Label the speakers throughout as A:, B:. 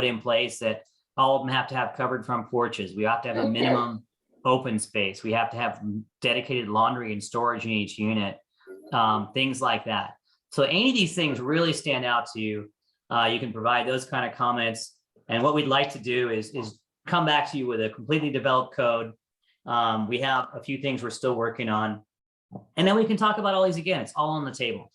A: put in place that all of them have to have covered front porches. We have to have a minimum open space. We have to have dedicated laundry and storage in each unit, um, things like that. So any of these things really stand out to you. Uh, you can provide those kind of comments. And what we'd like to do is, is come back to you with a completely developed code. Um, we have a few things we're still working on. And then we can talk about all these again. It's all on the table.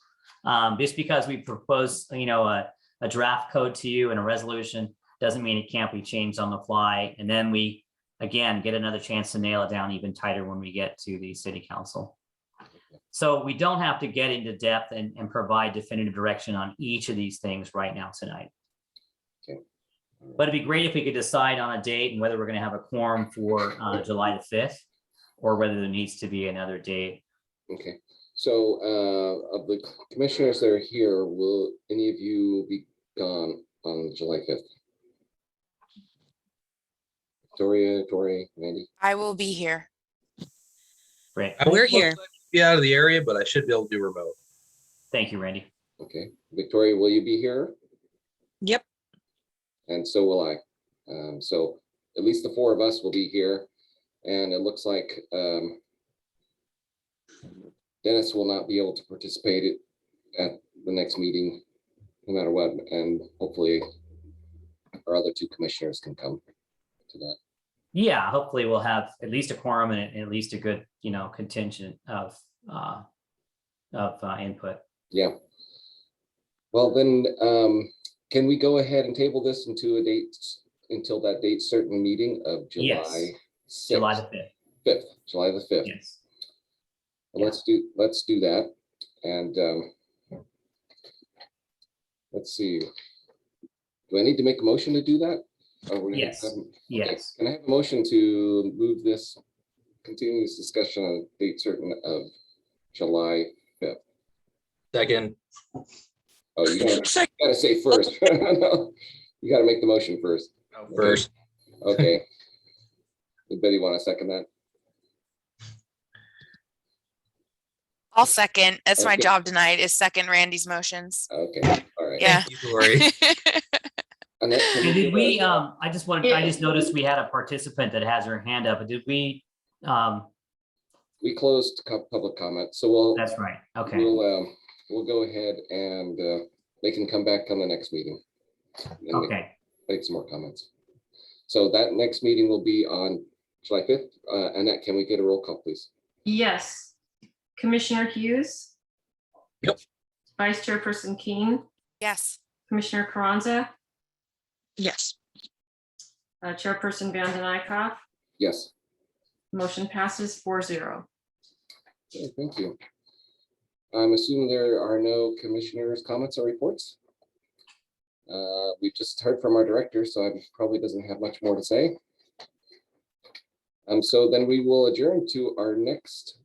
A: Um, just because we propose, you know, a, a draft code to you and a resolution doesn't mean it can't be changed on the fly. And then we, again, get another chance to nail it down even tighter when we get to the city council. So we don't have to get into depth and, and provide definitive direction on each of these things right now tonight.
B: Okay.
A: But it'd be great if we could decide on a date and whether we're gonna have a quorum for, uh, July the fifth, or whether there needs to be another date.
B: Okay, so uh, of the commissioners that are here, will any of you be gone on July fifth? Victoria, Tori, Mandy,
C: I will be here.
A: Great,
D: I won't
E: We're
D: most
E: here.
D: likely Be out of the area, but I should be able to do remote.
A: thank you, Randy.
B: okay. Victoria, will you be here?
E: Yep.
B: And so will I. Um, So at least the four of us will be here. And it looks like um, Dennis will not be able to participate at- at the next meeting, no matter what, and hopefully our other two commissioners can come to that.
A: Yeah, hopefully we'll have at least a quorum and at least a good, you know, contingent of, uh, of, uh, input.
B: Yeah. Well, then, um, can we go ahead and table this into a date, until that date certain meeting of
A: Yes.
B: July?
A: July the fifth,
B: Fifth, July the fifth.
A: yes.
B: Well,
A: Yeah.
B: Let's do, let's do that. And um, let's see. Do I need to make a motion to do that? Or we're gonna
A: Yes.
B: have- okay,
A: Yes,
B: Can I have a motion to move this continuous discussion on date certain of July?
D: Second,
B: Oh, you gotta
E: Sec-
B: you gotta say first. No, You gotta make the motion first.
D: out first,
B: Okay. Anybody want to second that?
C: I'll second. That's my
B: Okay.
C: job tonight is second Randy's motions.
B: Okay, all right.
C: Yeah.
D: you worry.
B: Annette, can uh,
A: And
B: you give
A: did we,
B: us-
A: um, I just wanted, I just noticed we had a participant that has her hand up, did we, um,
B: We closed co- public comment, so we'll,
A: that's right, okay,
B: We'll, um, we'll go ahead and, uh, they can come back on the next meeting. and make-
A: okay,
B: Make some more comments. So that next meeting will be on July fifth. Uh, Annette, can we get a roll call, please?
F: Yes. Commissioner Hughes?
D: Yep.
F: Vice Chairperson Keen,
C: Yes.
F: Commissioner Carranza,
E: Yes.
F: uh, Chairperson Van den Eyck.
B: Yes,
F: Motion passes 4-0.
B: Okay, thank you. I'm assuming there are no commissioners' comments or reports. Uh, we just heard from our director, so I probably doesn't have much more to say. Um, so then we will adjourn to our next.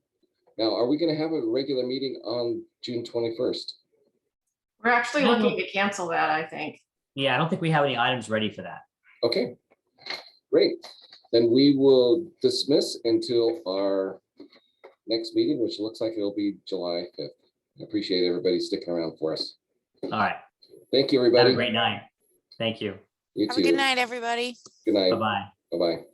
B: Now, are we gonna have a regular meeting on June twenty-first?
F: We're actually
A: No.
F: looking to cancel that, I think.
A: yeah, I don't think we have any items ready for that.
B: Okay, great. Then we will dismiss until our next meeting, which looks like it'll be July fifth. I Appreciate everybody sticking around for us.
A: All right,
B: Thank you,
A: have a
B: everybody.
A: great night, thank you,
B: You
C: Have
B: too.
C: a good night, everybody.
B: Good night.
A: bye-bye.
B: Bye-bye.